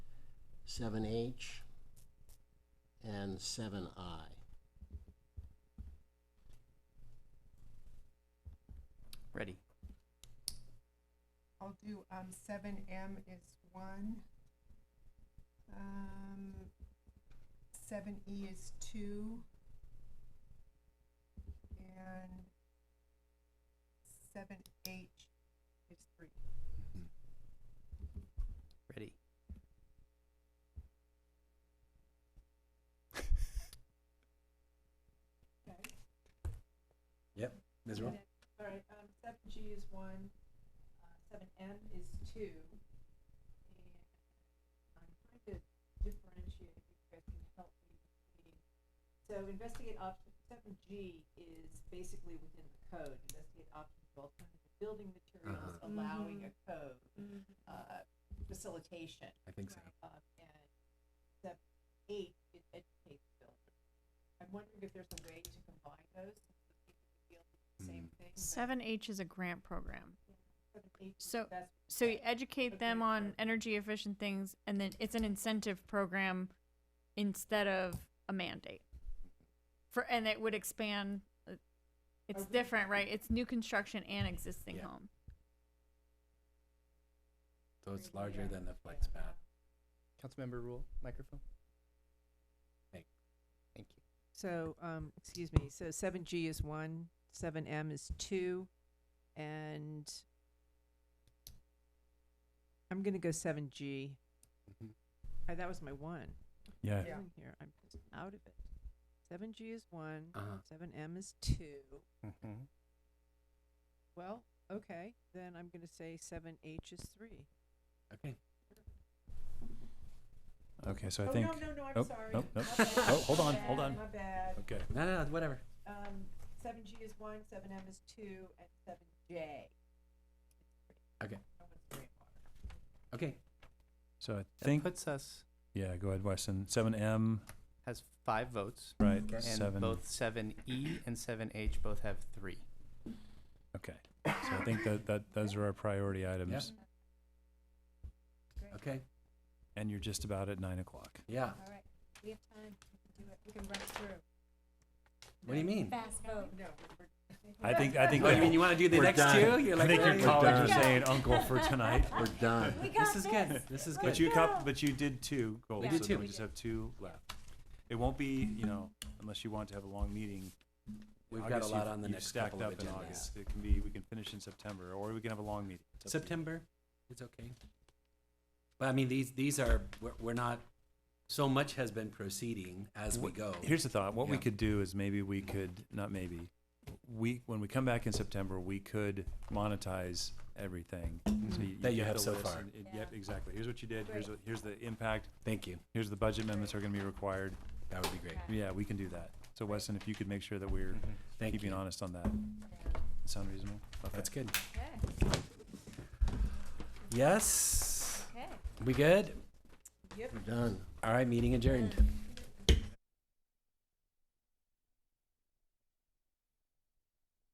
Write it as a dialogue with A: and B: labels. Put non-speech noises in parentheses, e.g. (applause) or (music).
A: seven H, and seven I.
B: Ready.
C: I'll do, um, seven M is one. Um, seven E is two. And seven H is three.
B: Ready.
C: Okay.
D: Yep, Ms.
C: And
D: Rowe?
C: then- All right, um, seven G is one, uh, seven M is two. And I'm trying to differentiate, if you guys can help me between. So investigate option, seven G is basically within the code, investigate options, of alternative building materials,
D: Uh-huh.
C: allowing a code, uh, facilitation.
D: I think so.
C: Um, and step eight is educate the builder. I'm wondering if there's a way to combine those, so that people can feel the
D: Hmm.
C: same thing. but
E: Seven H is a grant program.
C: seven, eight is
E: so-
C: the best
E: So you
C: way.
E: educate them
C: Okay.
E: on energy efficient things and then it's an incentive program instead of a mandate. For, and it would expand, uh, it's
C: Are we-
E: different, right? It's new construction and existing
D: Yeah.
E: home.
D: So it's larger than the flex pad.
B: Councilmember Rule, microphone.
D: Thank-
B: Thank you.
F: So, um, excuse me, so seven G is one, seven M is two, and I'm gonna go seven G.
D: Mhm.
F: Uh, that was my one.
G: Yeah.
C: Yeah.
F: Doing Here, I'm just out of it. Seven G is one,
D: Uh-huh.
F: seven M is two.
G: Mhm.
F: Well, okay, then I'm gonna say seven H is three.
D: Okay.
G: Okay, so I
C: Oh,
G: think.
C: no, no, no, I'm
G: oh,
C: sorry.
G: nope, nope.
C: My bad,
G: Oh, hold
C: my
G: on,
C: bad,
G: hold on.
C: My bad.
G: Okay.
D: No, no, no, whatever.
C: Um, seven G is one, seven M is two, and seven J.
D: Okay. Okay.
G: So I
B: That
G: think.
B: puts us
G: yeah, go ahead, Weston. 7M,
B: has five votes,
G: right?
D: Okay.
B: and
G: Seven.
B: both seven E and seven H both have three.
G: Okay. So I think that, that those are our priority items.
D: Okay.
G: And you're just about at nine o'clock.
D: Yeah.
C: All right, we have time, we can do it, we can run through.
D: What do you mean?
C: Fast
F: Oh,
C: vote. No. we're- we're-
G: I think. I think.
D: Oh, you
G: that-
D: mean you want to do the
G: We're
D: next
G: done.
D: two? You're
G: I
D: like,
G: think your
D: "Hey,
G: colleagues
D: we're
G: are
D: done."
G: saying uncle
D: (laughs)
G: for tonight.
A: We're done.
D: This is good. This is
G: But
D: good.
G: you cop, but you did two goals,
D: We
G: so
D: did
G: then
D: two.
G: we just have two left. It won't be, you know, unless you want to have a long meeting.
D: We've got a
G: August,
D: lot
G: you've-
D: on the
G: you've
D: next
G: stacked
D: couple of
G: up in
D: agendas.
G: August. It can be, we can finish in September, or we can have a long meeting. It's up to you.
D: September. It's okay. But I mean, these, these are, we're, we're not, so much has been proceeding as we
G: Wh-
D: go.
G: Here's the thought. What we
D: Yeah.
G: could do is maybe we could, not maybe, we, when we come back in September, we could monetize everything. So you-
D: Mm-hmm. That you
G: get
D: have
G: the
D: so
G: list
D: far.
G: and it- Yep, exactly. Here's what you did, here's, what- here's the impact,
D: Thank you.
G: here's the budget amendments that are gonna be required.
D: That would be great.
G: Yeah, we can do that. So Weston, if you could make sure that we're
D: Thank
G: keeping
D: you.
G: honest on that. Sound reasonable? Okay.
D: That's good.
C: Okay,
D: Yes.
C: okay.
D: We good?
A: We're done.
D: All right, meeting adjourned.